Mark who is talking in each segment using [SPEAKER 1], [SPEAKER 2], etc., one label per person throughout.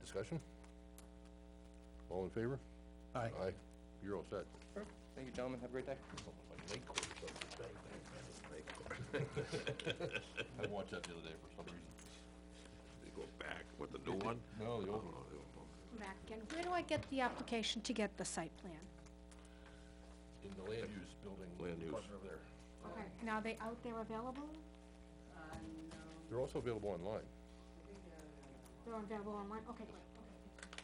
[SPEAKER 1] Discussion? All in favor?
[SPEAKER 2] Aye.
[SPEAKER 1] Aye, you're all set.
[SPEAKER 3] Perfect. Thank you, gentlemen. Have a great day.
[SPEAKER 1] I watched that the other day for some reason.
[SPEAKER 4] They go back, what, the new one? Oh,
[SPEAKER 1] No, the old one.
[SPEAKER 5] Come back again. Where do I get the application to get the site plan?
[SPEAKER 1] In the land use building.
[SPEAKER 4] Land use.
[SPEAKER 1] department over there.
[SPEAKER 5] Okay, and are they out there available?
[SPEAKER 1] They're also available online.
[SPEAKER 5] They're available online? Okay, great, okay.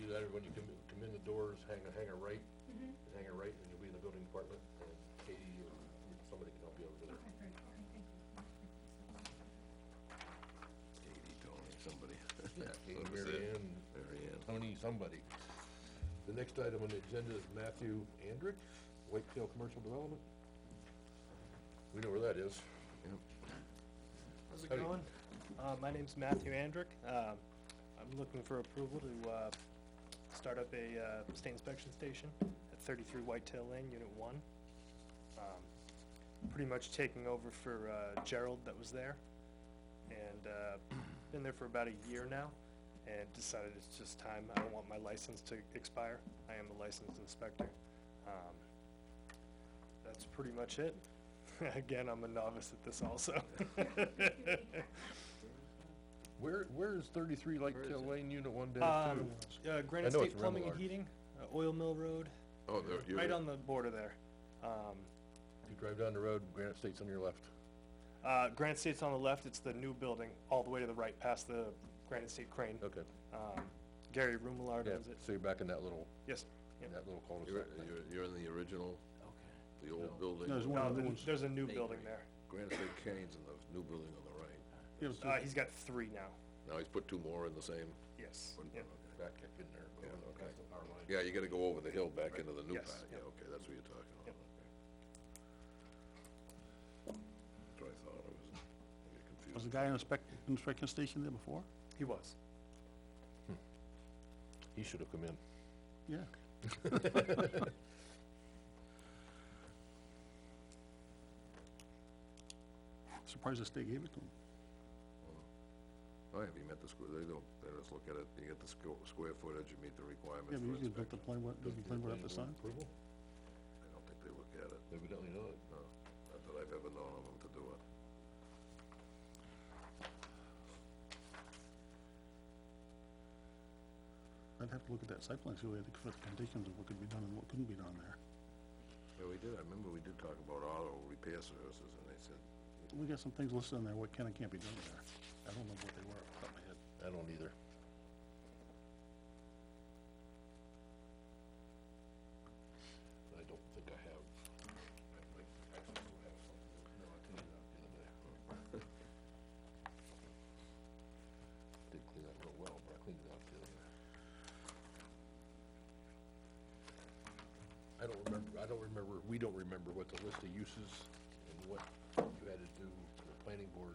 [SPEAKER 1] Either that or when you come, in- come in the doors, hang a, hang a right, and hang a right, and you'll be in the building department, and Katie or somebody can help you over there.
[SPEAKER 4] Katie, Tony, somebody.
[SPEAKER 1] Yeah, Katie,
[SPEAKER 4] That was
[SPEAKER 1] Mary
[SPEAKER 4] it.
[SPEAKER 1] Ann,
[SPEAKER 4] Mary Ann.
[SPEAKER 1] Tony, somebody. The next item on the agenda is Matthew Andrick, Whitetail Commercial Development. We know where that is.
[SPEAKER 2] How's it
[SPEAKER 1] Howdy.
[SPEAKER 2] going? Uh, my name's Matthew Andrick. Um, I'm looking for approval to, uh, start up a, uh, state inspection station at thirty-three Whitetail Lane, Unit One. Um, Pretty much taking over for, uh, Gerald that was there. And, uh, been there for about a year now and decided it's just time. I don't want my license to expire. I am a licensed inspector. Um, That's pretty much it. Again, I'm a novice at this also.
[SPEAKER 1] Where, where is thirty-three Lake Tail Lane, Unit one dash two?
[SPEAKER 2] Um, uh,
[SPEAKER 1] I
[SPEAKER 2] Granite
[SPEAKER 1] know it's
[SPEAKER 2] State Plumbing and
[SPEAKER 1] Remillard.
[SPEAKER 2] Heating, uh, Oil Mill Road,
[SPEAKER 4] Oh, there, you,
[SPEAKER 2] right on the border there. Um,
[SPEAKER 1] You drive down the road, Granite State's on your left.
[SPEAKER 2] uh, Granite State's on the left, it's the new building, all the way to the right, past the Granite State Crane.
[SPEAKER 1] Okay,
[SPEAKER 2] Um, Gary Rumillard
[SPEAKER 1] yeah,
[SPEAKER 2] owns it.
[SPEAKER 1] so you're back in that little,
[SPEAKER 2] Yes.
[SPEAKER 1] in that little
[SPEAKER 4] you're,
[SPEAKER 1] cul-de-sac.
[SPEAKER 4] you're- you're in the original, the
[SPEAKER 1] No.
[SPEAKER 4] old building.
[SPEAKER 6] There's one
[SPEAKER 2] No,
[SPEAKER 6] of
[SPEAKER 2] th-
[SPEAKER 6] those,
[SPEAKER 2] there's a new building there.
[SPEAKER 4] Granite State Cane's and the new building on the right.
[SPEAKER 6] it was
[SPEAKER 2] Uh,
[SPEAKER 6] just-
[SPEAKER 2] he's got three now.
[SPEAKER 4] Now he's put two more in the same,
[SPEAKER 2] Yes.
[SPEAKER 4] one-
[SPEAKER 2] Yeah.
[SPEAKER 1] Back kick in there, over the- past the power line.
[SPEAKER 4] yeah, you gotta go over the hill back into the new
[SPEAKER 2] Yes,
[SPEAKER 4] pad, yeah, okay, that's what you're talking about.
[SPEAKER 2] Yep.
[SPEAKER 4] okay. That's what I thought, I was, I get
[SPEAKER 6] was
[SPEAKER 4] confused.
[SPEAKER 6] the guy in inspect, inspection station there before?
[SPEAKER 2] He was.
[SPEAKER 1] He should've come in.
[SPEAKER 6] Yeah. Surprised the state gave it to him.
[SPEAKER 4] Oh, have you met the square, they don't, they just look at it, you get the squ- square footage, you meet the
[SPEAKER 6] Yeah,
[SPEAKER 4] requirements
[SPEAKER 6] but
[SPEAKER 4] for
[SPEAKER 6] usually built the
[SPEAKER 4] inspection.
[SPEAKER 6] plan, what, doesn't the plan what have to sign?
[SPEAKER 1] Approval?
[SPEAKER 4] I don't think they look at it,
[SPEAKER 1] Evidently not.
[SPEAKER 4] no, not that I've ever known of them to do it.
[SPEAKER 6] I'd have to look at that site plan, see what the what the conditions of what could be done and what couldn't be done there.
[SPEAKER 4] Yeah, we did, I remember we did talk about auto repair services, and they said,
[SPEAKER 6] We got some things listed in there, what can and can't be done there. I don't know what they were, off the top of my head.
[SPEAKER 1] I don't either. I don't think I have. I might actually do have something. No, I cleaned it out the other day. Didn't clean it real well, but I cleaned it out the other day. I don't remember, I don't remember, we don't remember what the list of uses and what you had to do for the planning board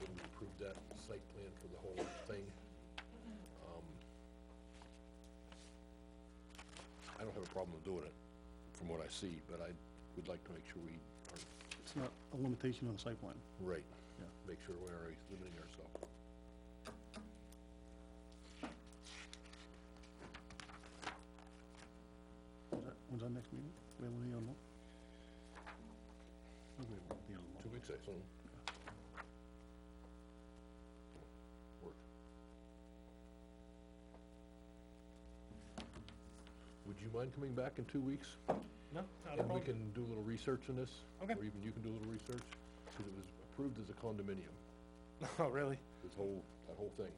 [SPEAKER 1] when we approved that site plan for the whole thing. Um, I don't have a problem with doing it, from what I see, but I would like to make sure we are
[SPEAKER 6] It's not a limitation on the site plan.
[SPEAKER 1] right.
[SPEAKER 6] Yeah.
[SPEAKER 1] Make sure we are limiting ourselves.
[SPEAKER 6] When's that, when's our next meeting? We have any on that? I think we have the other
[SPEAKER 1] Two
[SPEAKER 6] one.
[SPEAKER 1] weeks, I assume. Work. Would you mind coming back in two weeks?
[SPEAKER 2] No, not a
[SPEAKER 1] And we
[SPEAKER 2] problem.
[SPEAKER 1] can do a little research on this?
[SPEAKER 2] Okay.
[SPEAKER 1] Or even you can do a little research, because it was approved as a condominium,
[SPEAKER 2] Oh, really?
[SPEAKER 1] this whole, that whole thing.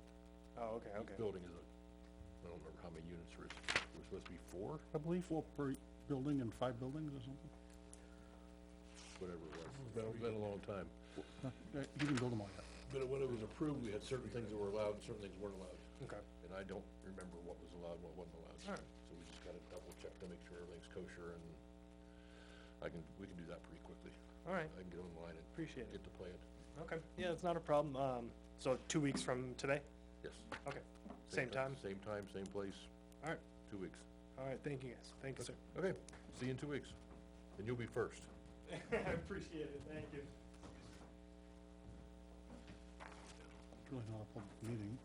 [SPEAKER 2] Oh, okay,
[SPEAKER 1] Each
[SPEAKER 2] okay.
[SPEAKER 1] building is a, I don't remember how many units there is, there was supposed to be four,
[SPEAKER 6] I believe four per building and five buildings or something.
[SPEAKER 1] whatever it was. It's been, been a long time.
[SPEAKER 6] Yeah, You can build them all yet.
[SPEAKER 1] But when it was approved, we had certain things that were allowed, and certain things weren't allowed.
[SPEAKER 2] Okay.
[SPEAKER 1] And I don't remember what was allowed, what wasn't allowed.
[SPEAKER 2] Alright.
[SPEAKER 1] So we just gotta double check to make sure everything's kosher and I can, we can do that pretty quickly.
[SPEAKER 2] All right.
[SPEAKER 1] I can get online and
[SPEAKER 2] Appreciate it.
[SPEAKER 1] get the plan.
[SPEAKER 2] Okay. Yeah, it's not a problem. Um, so two weeks from today?
[SPEAKER 1] Yes.
[SPEAKER 2] Okay. Same time?
[SPEAKER 1] Same time, same place,
[SPEAKER 2] All right.
[SPEAKER 1] two weeks.
[SPEAKER 2] All right, thank you guys. Thank you, sir.
[SPEAKER 1] Okay, see you in two weeks. And you'll be first.
[SPEAKER 2] I appreciate it, thank you.
[SPEAKER 6] It's really not a public meeting.